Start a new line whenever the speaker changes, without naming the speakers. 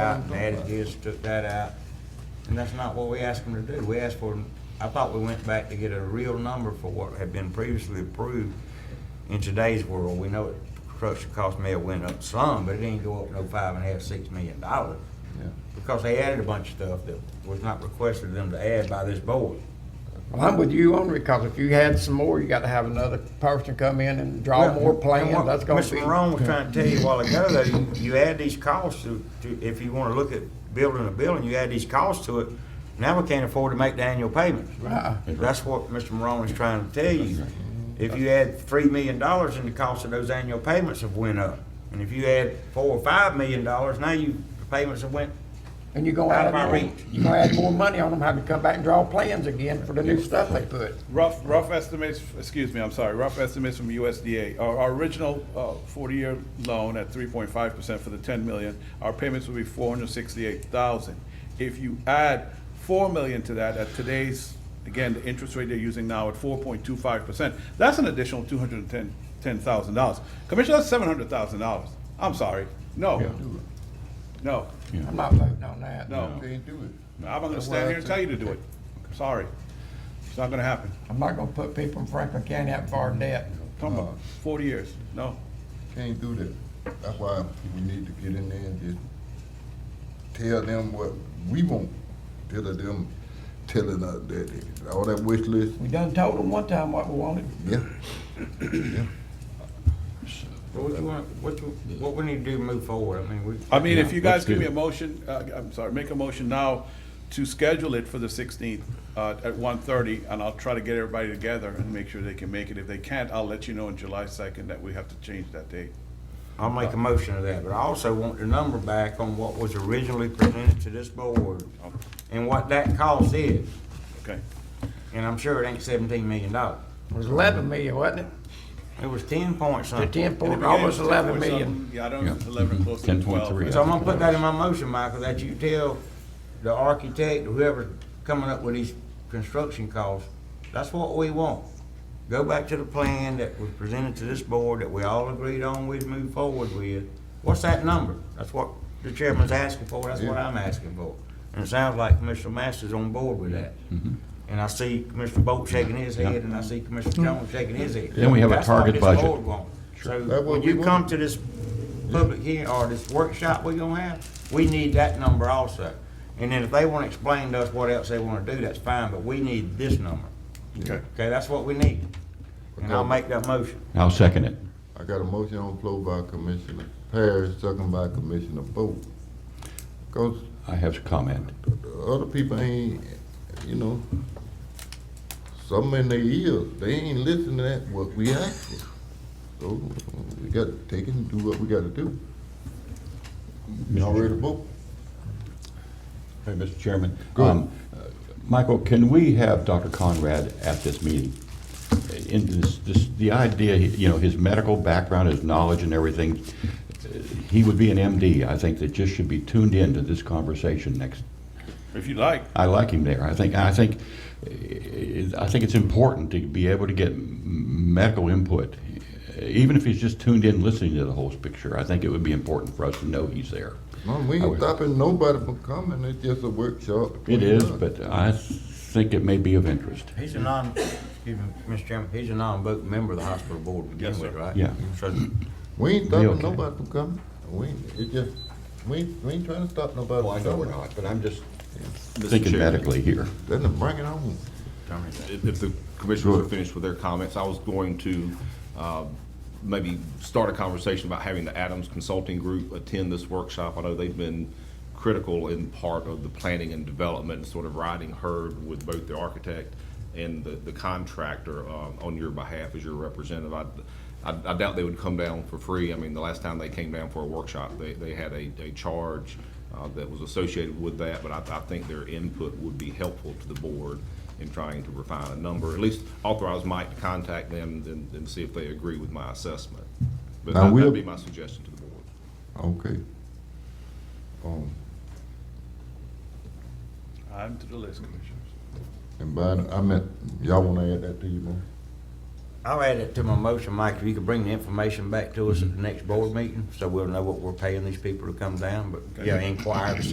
out and added this, took that out. And that's not what we asked them to do. We asked for, I thought we went back to get a real number for what had been previously approved. In today's world, we know that construction cost may have went up some, but it didn't go up no five and a half, six million dollars. Because they added a bunch of stuff that was not requested of them to add by this board.
Well, I'm with you on it, because if you had some more, you gotta have another person come in and draw more plans,
And
that's
what
gonna
Mr.
be.
Morone was trying to tell you a while ago, though, you, you add these costs to, to, if you wanna look at building a building, you add these costs to it, now we can't afford to make the annual payments.
Right.
That's what Mr. Morone is trying to tell you. If you add three million dollars and the cost of those annual payments have went up, and if you add four or five million dollars, now you, the payments have went,
And you're gonna
Out
add
of my
more,
reach.
you're gonna add more money on them, have to come back and draw plans again for the new stuff they put.
Rough, rough estimates, excuse me, I'm sorry, rough estimates from USDA. Our, our original uh, 40-year loan at 3.5% for the 10 million, our payments will be 468,000. If you add 4 million to that, at today's, again, the interest rate they're using now at 4.25%, that's an additional 210, $10,000. Commissioner, that's $700,000. I'm sorry. No, no,
I'm not voting on that.
no.
Can't do it.
I'm not gonna stand here and tell you to do it. Sorry. It's not gonna happen.
I'm not gonna put people in Franklin County out for our debt.
Come on, Uh, forty years, no.
Can't do that. That's why we need to get in there and just tell them what we want. Instead of them telling us that, it- all that wish list,
We done told them one time what we wanted.
yeah.
what you want, what you, what we need to do to move forward, I mean, we.
I mean, if you
Yeah,
guys
let's
give
do
me a
it.
motion, uh, I'm sorry, make a motion now to schedule it for the sixteenth, uh, at one thirty, and I'll try to get everybody together and make sure they can make it. If they can't, I'll let you know on July second that we have to change that date.
I'll make a motion of that, but I also want the number back on what was originally presented to this board and what that cost is.
Okay,
And I'm sure it ain't seventeen million dollars.
It was eleven million, wasn't it?
It was ten point
The
something.
ten point, almost eleven million.
Yeah, I don't, eleven, close to
Ten point
twelve.
three.
So I'm gonna put that in my motion, Michael, that you tell the architect, whoever coming up with these construction costs, that's what we want. Go back to the plan that was presented to this board that we all agreed on we'd move forward with. What's that number? That's what the chairman's asking for, that's what I'm asking for. And it sounds like Commissioner Masters on board with that.
Mm-hmm.
And I see Commissioner Bolt shaking his head, and I see Commissioner Jones shaking his head.
Then we have a
That's what
target
this
budget.
board want. So
That's what
when
we
you
want.
come to this public hearing or this workshop we're gonna have, we need that number also. And then if they wanna explain to us what else they wanna do, that's fine, but we need this number.
Okay.
Okay, that's what we need. And I'll make that motion.
I'll second it.
I got a motion on the floor by Commissioner Parrish, second by Commissioner Bolt. Cause
I have a comment.
the other people ain't, you know, some in their ears, they ain't listening to that what we ask for. So we gotta take it and do what we gotta do. Y'all ready to vote?
Hey, Mr. Chairman.
Go ahead.
Um, uh, Michael, can we have Dr. Conrad at this meeting? In this, this, the idea, you know, his medical background, his knowledge and everything, uh, he would be an MD, I think, that just should be tuned in to this conversation next.
If you like,
I like him there. I think, I think, uh, I think it's important to be able to get m- medical input. Even if he's just tuned in, listening to the whole picture, I think it would be important for us to know he's there.
No, we
I
ain't
would-
stopping nobody from coming, it's just a workshop.
It is,
between us.
but I think it may be of interest.
He's a non, excuse me, Mr. Chairman, he's a non-voting member of the hospital board to begin
Yes,
with,
sir.
right?
Yeah.
So
We ain't
Be
stopping
okay.
nobody from coming, we, ain't- it just, we, ain't- we ain't trying to stop nobody
Well, Oh, I
from
know we're
coming.
not, but I'm just.
Thinking medically here.
Then bring it on.
If if the commissioners are finished with their comments, I was going to uh, maybe start a conversation about having the Adams Consulting Group attend this workshop. I know they've been critical in part of the planning and development, and sort of riding herd with both the architect and the the contractor uh, on your behalf as your representative. I I- I doubt they would come down for free. I mean, the last time they came down for a workshop, they they had a a charge uh, that was associated with that, but I I think their input would be helpful to the board in trying to refine a number, at least authorize Mike to contact them and, and see if they agree with my assessment. But
I
that-
will-
that'd be my suggestion to the board.
Okay. Um,
I'm to the list, Commissioners.
and by, the- I meant, y'all wanna add that to you, man?
I'll add it to my motion, Mike, if you could bring the information back to us at the next board meeting, so we'll know what we're paying these people to come down, but, yeah, inquire to see